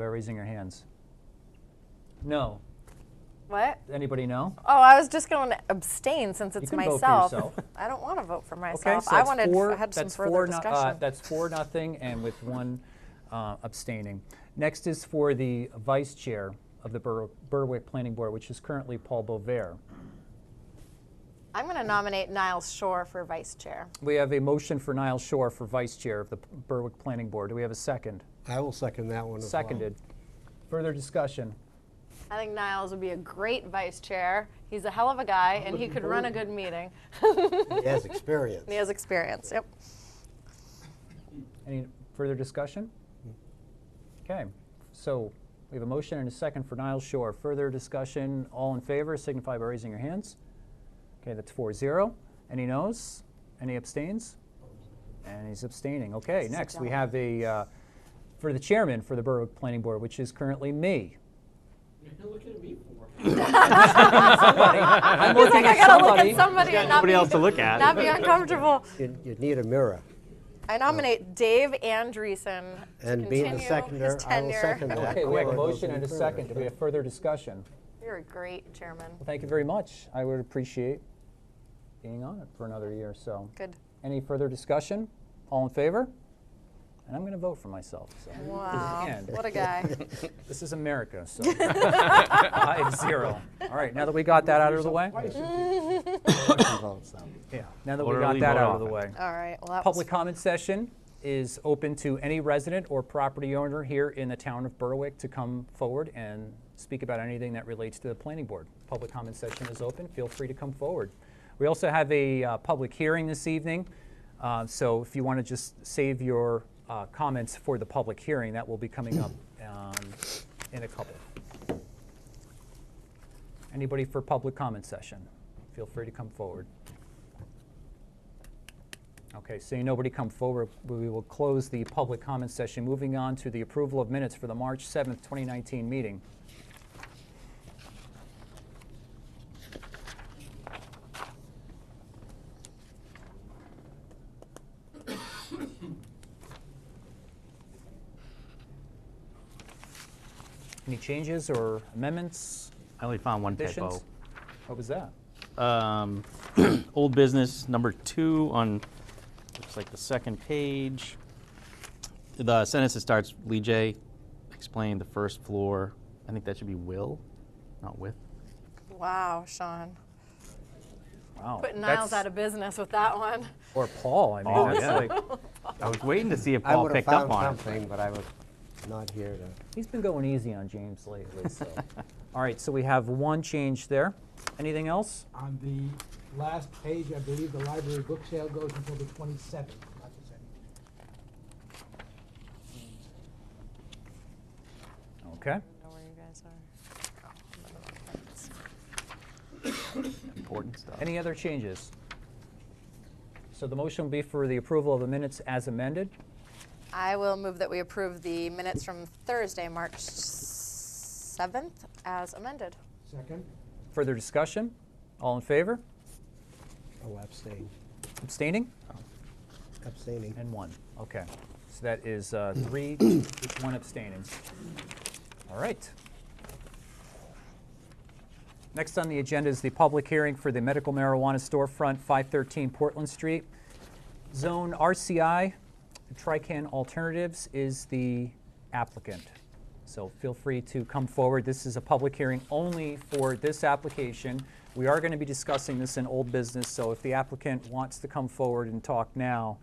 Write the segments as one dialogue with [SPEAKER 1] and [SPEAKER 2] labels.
[SPEAKER 1] by raising your hands. No.
[SPEAKER 2] What?
[SPEAKER 1] Anybody know?
[SPEAKER 2] Oh, I was just going to abstain since it's
[SPEAKER 1] can vote for
[SPEAKER 2] myself.
[SPEAKER 1] yourself.
[SPEAKER 2] I don't want to vote for myself.
[SPEAKER 1] Okay, so
[SPEAKER 2] I
[SPEAKER 1] that's
[SPEAKER 2] wanted
[SPEAKER 1] four,
[SPEAKER 2] I had some
[SPEAKER 1] that's
[SPEAKER 2] further
[SPEAKER 1] four no- uh,
[SPEAKER 2] discussion.
[SPEAKER 1] that's four nothing, and with one uh, abstaining. Next is for the vice chair of the Bur- Berwick Planning Board, which is currently Paul Bovair.
[SPEAKER 2] I'm going to nominate Niles Shore for vice chair.
[SPEAKER 1] We have a motion for Niall Shore for vice chair of the P- Berwick Planning Board. Do we have a second?
[SPEAKER 3] I will second that one as well.
[SPEAKER 1] Seconded. Further discussion?
[SPEAKER 2] I think Niles would be a great vice chair. He's a hell of a guy, and he could run a good meeting.
[SPEAKER 3] He has experience.
[SPEAKER 2] He has experience. Yep.
[SPEAKER 1] Any further discussion? Okay, so we have a motion and a second for Niall Shore. Further discussion, all in favor signify by raising your hands. Okay, that's four zero. Any noes? Any abstains? And he's abstaining. Okay,
[SPEAKER 2] Sit
[SPEAKER 1] next we
[SPEAKER 2] down.
[SPEAKER 1] have a, uh, for the chairman for the Borough Planning Board, which is currently me.
[SPEAKER 4] You're looking at me for.
[SPEAKER 1] I'm
[SPEAKER 2] He's like,
[SPEAKER 1] looking
[SPEAKER 2] I
[SPEAKER 1] at
[SPEAKER 2] got to look
[SPEAKER 1] somebody.
[SPEAKER 2] at somebody and not be,
[SPEAKER 5] nobody else to look at.
[SPEAKER 2] not be uncomfortable.
[SPEAKER 3] You'd, you'd need a mirror.
[SPEAKER 2] I nominate Dave Andreessen to
[SPEAKER 3] And being the
[SPEAKER 2] continue
[SPEAKER 3] seconder,
[SPEAKER 2] his
[SPEAKER 3] I will
[SPEAKER 2] tenure.
[SPEAKER 3] second that.
[SPEAKER 1] Okay, we have a
[SPEAKER 3] Or go
[SPEAKER 1] motion and a
[SPEAKER 3] further.
[SPEAKER 1] second. Do we have further discussion?
[SPEAKER 2] You're a great chairman.
[SPEAKER 1] Thank you very much. I would appreciate being on it for another year or so.
[SPEAKER 2] Good.
[SPEAKER 1] Any further discussion? All in favor? And I'm going to vote for myself. So.
[SPEAKER 2] Wow.
[SPEAKER 1] And-
[SPEAKER 2] What a guy.
[SPEAKER 1] This is America, so five zero. All right, now that we got that out of the way,
[SPEAKER 3] Votes, though.
[SPEAKER 1] yeah. Now that we got
[SPEAKER 5] Orderly
[SPEAKER 1] that
[SPEAKER 5] vote
[SPEAKER 1] out of the
[SPEAKER 5] often.
[SPEAKER 1] way,
[SPEAKER 2] All right. Well, that
[SPEAKER 1] public
[SPEAKER 2] was
[SPEAKER 1] comment session is open to any resident or property owner here in the town of Berwick to come forward and speak about anything that relates to the planning board. Public comment session is open. Feel free to come forward. We also have a uh, public hearing this evening, uh, so if you want to just save your uh, comments for the public hearing, that will be coming up um, in a couple. Anybody for public comment session? Feel free to come forward. Okay, seeing nobody come forward, we will close the public comment session. Moving on to the approval of minutes for the March 7th, 2019 meeting. Any changes or amendments,
[SPEAKER 5] I only found one
[SPEAKER 1] additions?
[SPEAKER 5] typo.
[SPEAKER 1] What was that?
[SPEAKER 5] Um, old business number two on, looks like the second page. The sentence that starts, Lee J explained the first floor. I think that should be will, not with.
[SPEAKER 2] wow, Sean.
[SPEAKER 1] Wow.
[SPEAKER 2] Putting Niles
[SPEAKER 1] that's-
[SPEAKER 2] out of business with that one.
[SPEAKER 1] Or Paul, I mean,
[SPEAKER 5] Paul,
[SPEAKER 1] that's
[SPEAKER 5] Oh, yeah.
[SPEAKER 1] like,
[SPEAKER 5] I was waiting to see if
[SPEAKER 3] I
[SPEAKER 5] Paul
[SPEAKER 3] would have
[SPEAKER 5] picked up
[SPEAKER 3] found
[SPEAKER 5] on it.
[SPEAKER 3] something, but I was not here to.
[SPEAKER 1] he's been going easy on James lately, so. All right, so we have one change there. Anything else?
[SPEAKER 6] On the last page, I believe the library book sale goes until the twenty-seventh, not the seventeenth.
[SPEAKER 1] Okay.
[SPEAKER 2] I don't know where you guys are.
[SPEAKER 5] Important stuff.
[SPEAKER 1] Any other changes? So the motion will be for the approval of the minutes as amended.
[SPEAKER 2] I will move that we approve the minutes from Thursday, March 7th, as amended.
[SPEAKER 6] Second?
[SPEAKER 1] Further discussion? All in favor?
[SPEAKER 3] Oh, abstain.
[SPEAKER 1] Abstaining?
[SPEAKER 3] Abstaining.
[SPEAKER 1] And one. Okay. So that is uh, three, with one abstaining. All right. Next on the agenda is the public hearing for the medical marijuana storefront, 513 Portland Street. Zone RCI, Trican Alternatives is the applicant. So feel free to come forward. This is a public hearing only for this application. We are going to be discussing this in old business, so if the applicant wants to come forward and talk now,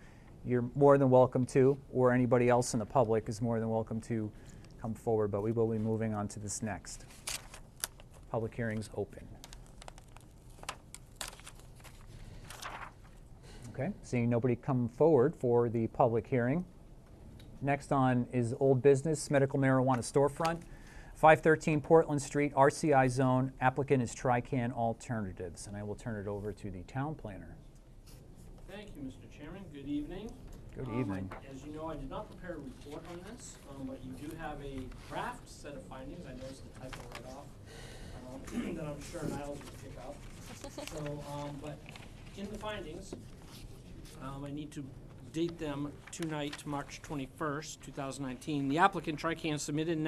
[SPEAKER 1] you're more than welcome to, or anybody else in the public is more than welcome to come forward, but we will be moving on to this next. Public hearing's open. Okay, seeing nobody come forward for the public hearing. Next on is old business, medical marijuana storefront, 513 Portland Street, RCI zone. Applicant is Trican Alternatives, and I will turn it over to the town planner.
[SPEAKER 4] Thank you, Mr. Chairman. Good evening.
[SPEAKER 1] Good
[SPEAKER 4] Um, I-
[SPEAKER 1] evening.
[SPEAKER 4] As you know, I did not prepare a report on this, um, but you do have a draft set of findings. I noticed the typo right off, um, that I'm sure Niles will pick up. So, um, but in the findings, um, I need to date them tonight, March twenty-first, two thousand nineteen. The applicant Trican submitted an